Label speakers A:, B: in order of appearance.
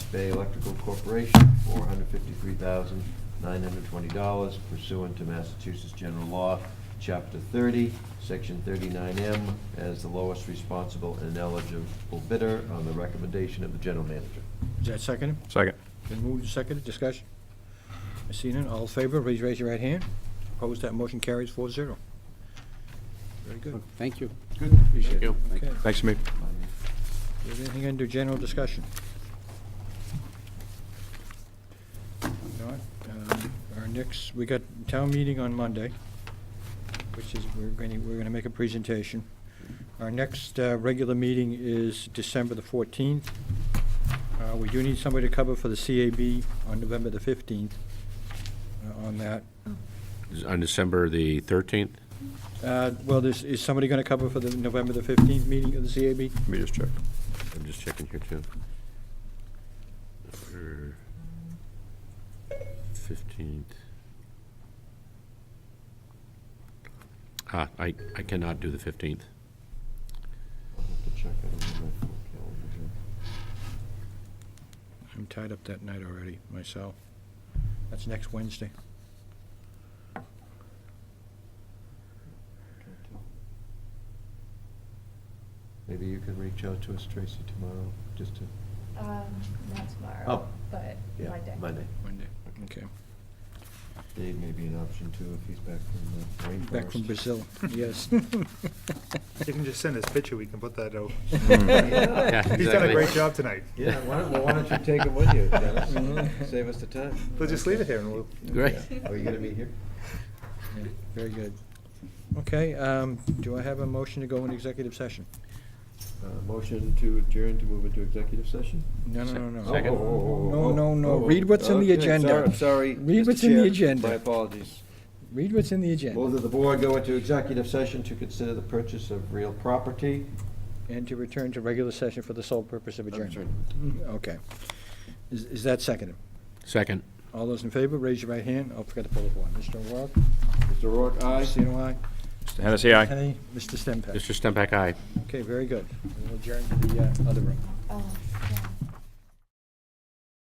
A: Bay Electrical Corporation for $153,920 pursuant to Massachusetts General Law, Chapter 30, Section 39M, as the lowest responsible and eligible bidder on the recommendation of the general manager.
B: Is that seconded?
C: Second.
B: Been moved and seconded, discussion? I see none, all in favor, please raise your right hand. Opposed, that motion carries four zero. Very good.
D: Thank you.
A: Good, appreciate it.
D: Thank
B: Okay,
D: you.
C: Thanks, Hamid.
B: is there anything under general discussion? Not, um, Our next, we got town meeting on Monday, which is, we're going to, we're going to make a presentation. Our next uh, regular meeting is December the 14th. Uh, We do need somebody to cover for the CAB on November the 15th uh, on that.
C: On December the 13th?
B: Uh, Well, there's- is somebody going to cover for the November the 15th meeting of the CAB?
C: Let me just check. I'm just checking here, too. November 15th. Ah, I, I cannot do the 15th.
A: I'll have to check. I don't have my full calendar here.
B: I'm tied up that night already, myself. That's next Wednesday.
A: Maybe you can reach out to us, Tracy, tomorrow, just to.
E: Um, not tomorrow,
A: Oh.
E: but
A: yeah,
E: Monday.
A: Monday.
B: Monday. Okay.
A: Dave may be an option too, if he's back from the rainforest.
B: Back from Brazil, yes.
F: You can just send us a picture, we can put that out.
C: Mm. Yeah,
F: He's done a
C: exactly.
F: great job tonight.
A: Yeah, why don't, well, why don't you take him with you, Dennis? Save us the time.
F: We'll just leave it here and we'll,
C: Mm-hmm. Great.
A: Yeah. Are you gonna be here?
B: Yeah, Very good. Okay, um, do I have a motion to go in executive session?
A: Uh, Motion to adjourn to move into executive session?
B: No, no, no, no.
C: Second.
A: Oh, oh, oh,
B: No,
A: oh,
B: no, no.
A: oh, oh.
B: Read what's in the
A: Okay,
B: agenda.
A: sorry, I'm sorry.
B: Read
A: Mr.
B: what's in the
A: Chair.
B: agenda.
A: My apologies.
B: Read what's in the agenda
A: Move that the board go into executive session to consider the purchase of real property.
B: and to return to regular session for the sole purpose of adjournment. Mm-hmm. Okay. Is, is that seconded?
C: Second.
B: All those in favor, raise your right hand. Oh, forgot to pull the board. Mr. O'Rourke?
A: Mr. Rourke, aye.
B: Mr. Sino, aye.
C: Mr. Hennessy, aye.
B: Kennedy? Mr. Stempak?
C: Mr. Stempak, aye.
B: Okay, very good. We'll adjourn to the uh, other room.
E: Oh, yeah.